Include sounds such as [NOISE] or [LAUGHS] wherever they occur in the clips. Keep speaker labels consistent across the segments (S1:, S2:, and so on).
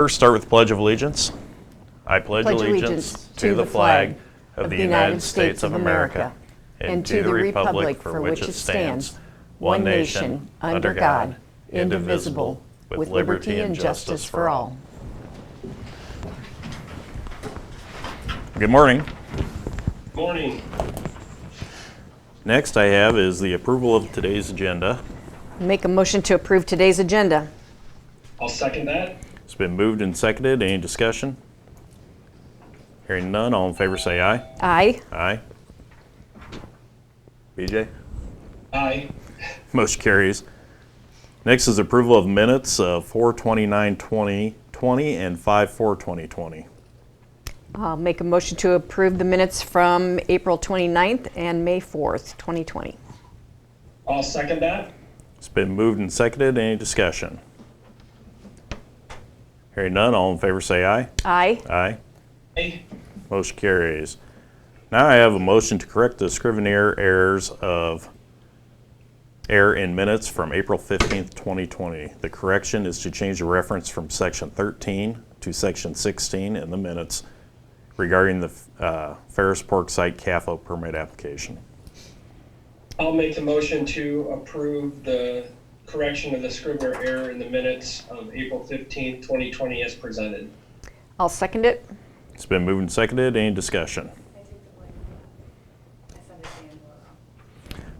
S1: First, start with Pledge of Allegiance. I pledge allegiance to the flag of the United States of America and to the republic for which it stands, one nation, under God, indivisible, with liberty and justice for all. Good morning.
S2: Morning.
S1: Next I have is the approval of today's agenda.
S3: Make a motion to approve today's agenda.
S2: I'll second that.
S1: It's been moved and seconded. Any discussion? Hearing none, all in favor say aye.
S3: Aye.
S1: Aye. BJ?
S2: Aye.
S1: Motion carries. Next is approval of minutes of 4/29/2020 and 5/4/2020.
S3: I'll make a motion to approve the minutes from April 29th and May 4th, 2020.
S2: I'll second that.
S1: It's been moved and seconded. Any discussion? Hearing none, all in favor say aye.
S3: Aye.
S1: Aye.
S2: Aye.
S1: Motion carries. Now I have a motion to correct the Scrivener errors of error in minutes from April 15th, 2020. The correction is to change the reference from section 13 to section 16 in the minutes regarding the uh, Ferris Pork Site CAFO permit application.
S2: I'll make the motion to approve the correction of the Scrivener error in the minutes of April fifteenth, twenty twenty as presented.
S3: I'll second it.
S1: It's been moved and seconded. Any discussion?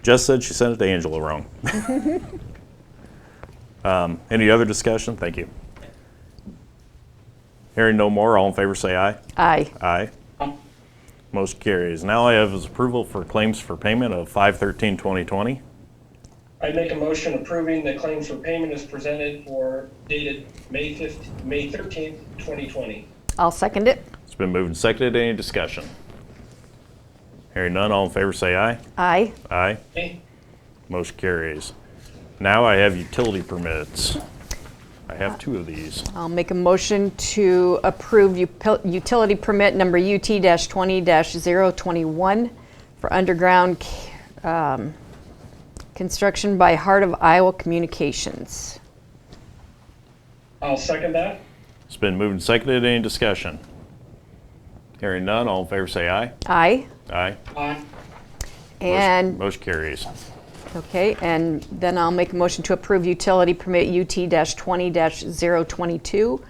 S1: Jess said she sent it to Angela wrong. Um, Any other discussion? Thank you. Hearing no more, all in favor say aye.
S3: Aye.
S1: Aye.
S2: Aye.
S1: Motion carries. Now I have is approval for claims for payment of 5/13/2020.
S2: I make a motion approving the claims for payment as presented for dated May fifth, May thirteenth, twenty twenty.
S3: I'll second it.
S1: It's been moved and seconded. Any discussion? Hearing none, all in favor say aye.
S3: Aye.
S1: Aye.
S2: Aye.
S1: Motion carries. Now I have utility permits. I have two of these.
S3: I'll make a motion to approve u- utility permit number UT-20-021 for underground c- um, construction by Heart of Iowa Communications.
S2: I'll second that.
S1: It's been moved and seconded. Any discussion? Hearing none, all in favor say aye.
S3: Aye.
S1: Aye.
S2: Aye.
S3: And
S1: Motion carries.
S3: Okay, and then I'll make a motion to approve utility permit UT-20-022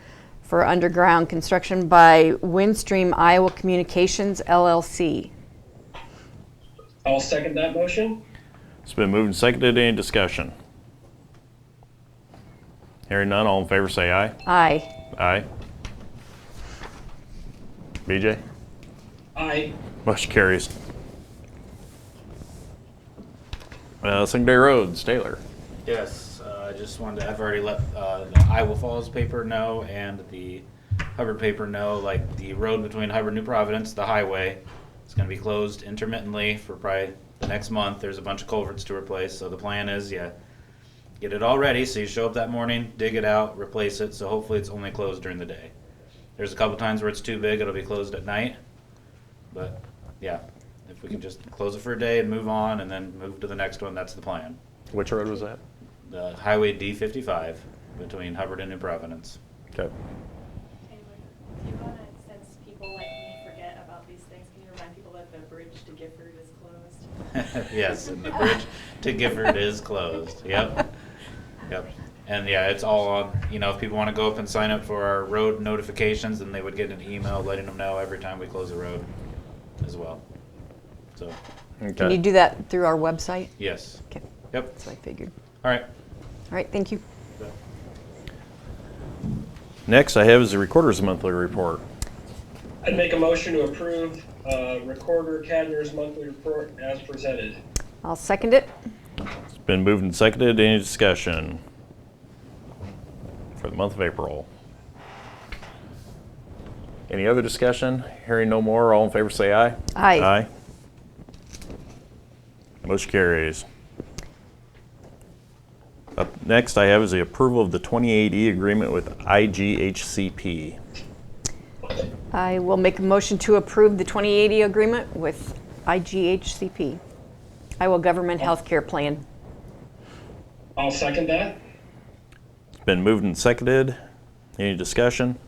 S3: for underground construction by Windstream Iowa Communications LLC.
S2: I'll second that motion.
S1: It's been moved and seconded. Any discussion? Hearing none, all in favor say aye.
S3: Aye.
S1: Aye. BJ?
S2: Aye.
S1: Motion carries. Uh, Secondary roads, Taylor.
S4: Yes, uh, I just wanted to, I've already let uh, the Iowa Falls paper know and the Hubbard paper know, like the road between Hubbard and New Providence, the highway, it's gonna be closed intermittently for probably the next month. There's a bunch of culverts to replace, so the plan is, yeah, get it all ready, so you show up that morning, dig it out, replace it, so hopefully it's only closed during the day. There's a couple times where it's too big, it'll be closed at night, but, yeah, if we can just close it for a day and move on and then move to the next one, that's the plan
S1: Which road was that?
S4: the Highway D fifty-five between Hubbard and New Providence.
S1: Okay.
S5: Taylor, do you wanna, since people like me forget about these things, can you remind people that the bridge to Gifford is closed?
S4: [LAUGHS] Yes, and the bridge to Gifford is closed, yep, yep. And yeah, it's all on, you know, if people wanna go up and sign up for our road notifications, then they would get an email letting them know every time we close a road as well. So,
S3: [LAUGHS] Can you do that through our website?
S4: yes,
S3: Okay,
S4: yep,
S3: that's what I figured.
S4: all right.
S3: All right, thank you.
S1: Next I have is the Recorder's Monthly Report.
S2: I'd make a motion to approve, uh, Recorder Cadner's monthly report as presented.
S3: I'll second it.
S1: It's been moved and seconded. Any discussion for the month of April? Any other discussion? Hearing no more, all in favor say aye.
S3: Aye.
S1: Aye. Motion carries. Up next I have is the approval of the 28E agreement with IGHCP.
S3: I will make a motion to approve the 2080 agreement with IGHCP, Iowa Government Healthcare Plan.
S2: I'll second that.
S1: It's been moved and seconded. Any discussion?